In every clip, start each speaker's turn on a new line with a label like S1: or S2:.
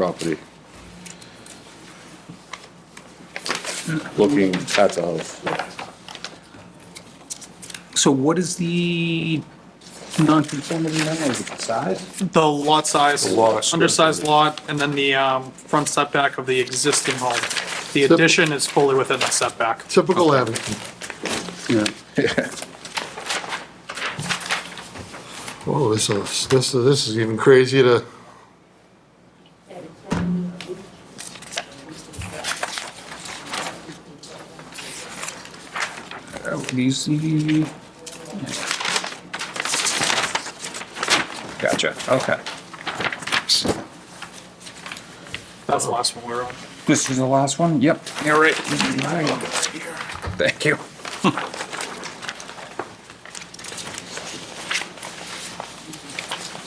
S1: property. Looking at the house.
S2: So what is the non-conformity now? Is it the size?
S3: The lot size,
S1: lot square
S3: undersized lot, and then the um, front setback of the existing home. The addition is fully within the setback.
S4: Typical Abington.
S2: Yeah.
S4: Oh, this is, this is, this is even crazier to,
S2: Oh, These, the-
S5: Gotcha, okay.
S3: That's the last one we were on.
S5: This is the last one? Yep. All right. Thank you.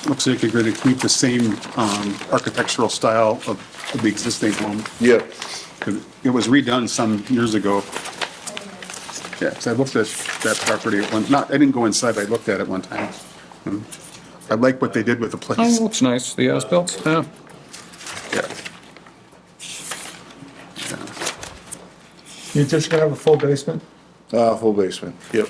S6: Looks like you're going to keep the same um, architectural style of of the existing home.
S1: Yep.
S6: 'cause It was redone some years ago. Yeah, 'cause I looked at that property at one, not, I didn't go inside, but I looked at it one time. Mm. I like what they did with the
S5: Oh,
S6: place.
S5: looks nice, the as-built, yeah.
S6: Yeah.
S7: You're just gonna have a full basement?
S1: Uh, full basement, yep.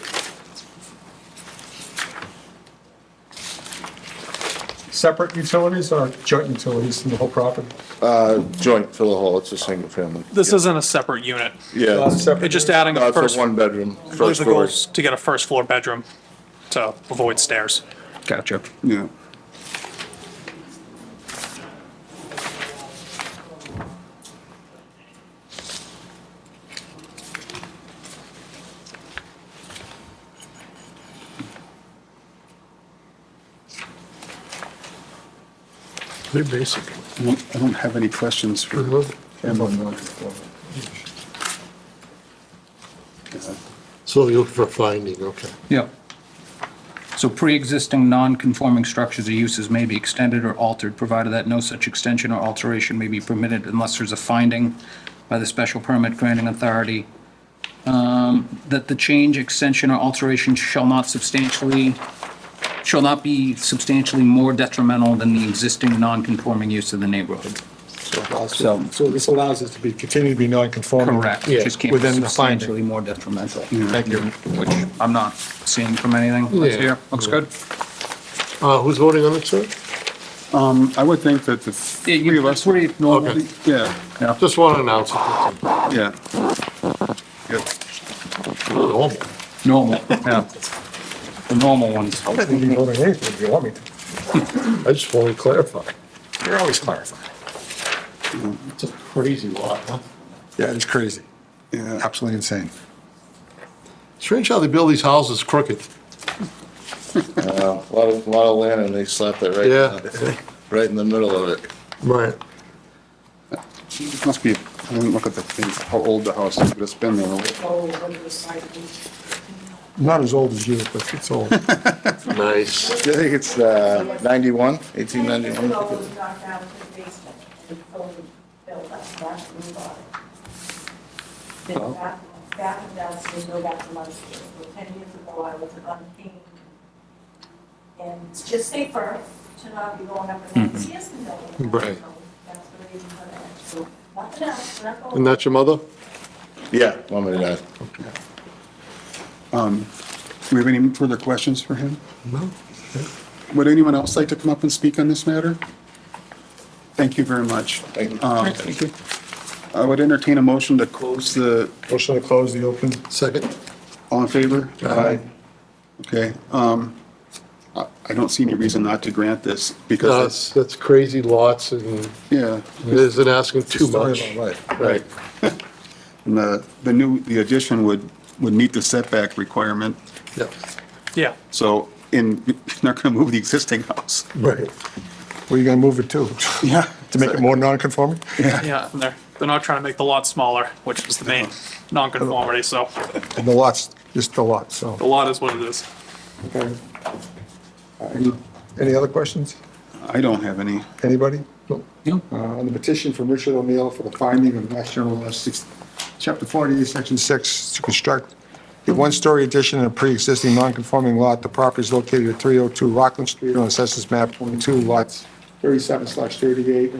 S7: Separate utilities or joint utilities in the whole property?
S1: Joint for the whole, it's a single family.
S3: This isn't a separate unit.
S1: Yeah.
S7: Uh, separate-
S3: It's just adding
S1: No,
S3: a
S1: it's
S3: first,
S1: a one bedroom,
S3: believe
S1: first
S3: the
S1: floor.
S3: goals to get a first floor bedroom to avoid stairs.
S5: Gotcha.
S6: Yeah. They're basic. I don't, I don't have any questions for Emma.
S4: so you're looking for a finding, okay.
S5: Yep.
S8: So pre-existing non-conforming structures or uses may be extended or altered, provided that no such extension or alteration may be permitted unless there's a finding by the special permit granting authority um, that the change, extension, or alteration shall not substantially, shall not be substantially more detrimental than the existing non-conforming use of the neighborhood.
S7: So this allows it to be, continue to be non-conforming?
S8: Correct.
S4: Yeah,
S8: Just can't be
S7: within the finding. Mm-hmm.
S8: substantially more detrimental,
S7: Thank you.
S8: which I'm not seeing from anything. Let's
S4: Yeah.
S8: hear. Looks good.
S4: Uh, who's voting on it, sir?
S6: Um, I would think that the
S8: Yeah, you-
S6: three of us.
S8: three
S6: normally- Yeah,
S4: Just want to announce it.
S6: yeah. Yep.
S4: Normal.
S8: Normal, yeah. The normal ones.
S7: I'll let you vote on anything if you want me to.
S4: I just want to clarify.
S7: You're always clarifying.
S4: It's a crazy lot, huh?
S7: Yeah, it's crazy. Yeah, absolutely insane.
S4: Strange how they build these houses crooked.
S1: A lot of, lot of land and they slapped it right,
S4: Yeah.
S1: in- right in the middle of it.
S4: Right.
S6: It Must be, I didn't look at the thing, how old the house is, but it's been there. a while.
S7: Not as old as you, but it's old.
S4: Nice.
S1: I think it's, uh, ninety-one, eighteen ninety-one.
S9: knocked down to the basement and fully built up, that's the new body. Then back, back and downstairs, go back to Munster. So Ten years ago, I was unpaid. And it's just safer to not be going up and down stairs and building.
S4: Right.
S9: That's the reason for that. So nothing else, we're not going.
S4: And that's your mother?
S1: Yeah, mom and dad.
S6: Do we have any further questions for him?
S4: No.
S6: Would anyone else like to come up and speak on this matter? Thank you very much.
S1: Thank you.
S6: Um, I would entertain a motion to close the,
S7: Motion to close the open.
S4: Second?
S6: all in favor?
S7: Uh,
S6: Aye. Okay. um, I I don't see any reason not to grant this
S4: No,
S6: because,
S4: it's- Uh, that's crazy lots and
S6: it's- yeah,
S4: isn't asking too
S7: Story
S4: much.
S7: of our life.
S4: Right.
S6: and the, the new, the addition would, would meet the setback requirement.
S4: Yeah.
S3: Yeah,
S6: So, in not going to move the existing house.
S7: Right. Where you gonna move it to?
S6: Yeah.
S7: To make it more non-conforming?
S3: yeah, and they're, they're not trying to make the lot smaller, which was the main non-conformity, so
S7: And the lots, just the lot, so.
S3: the lot is what it is.
S7: Okay. Any- Any other questions?
S6: I don't have any.
S7: Anybody? No.
S8: No.
S7: Uh, On the petition from Richard O'Neill for the finding of Mass General Law 6, Chapter 48, Section 6, to construct a one-story addition in a pre-existing non-conforming lot. The property oh is located at 302 Rockland Street on Assessors Map 22, lots 37/38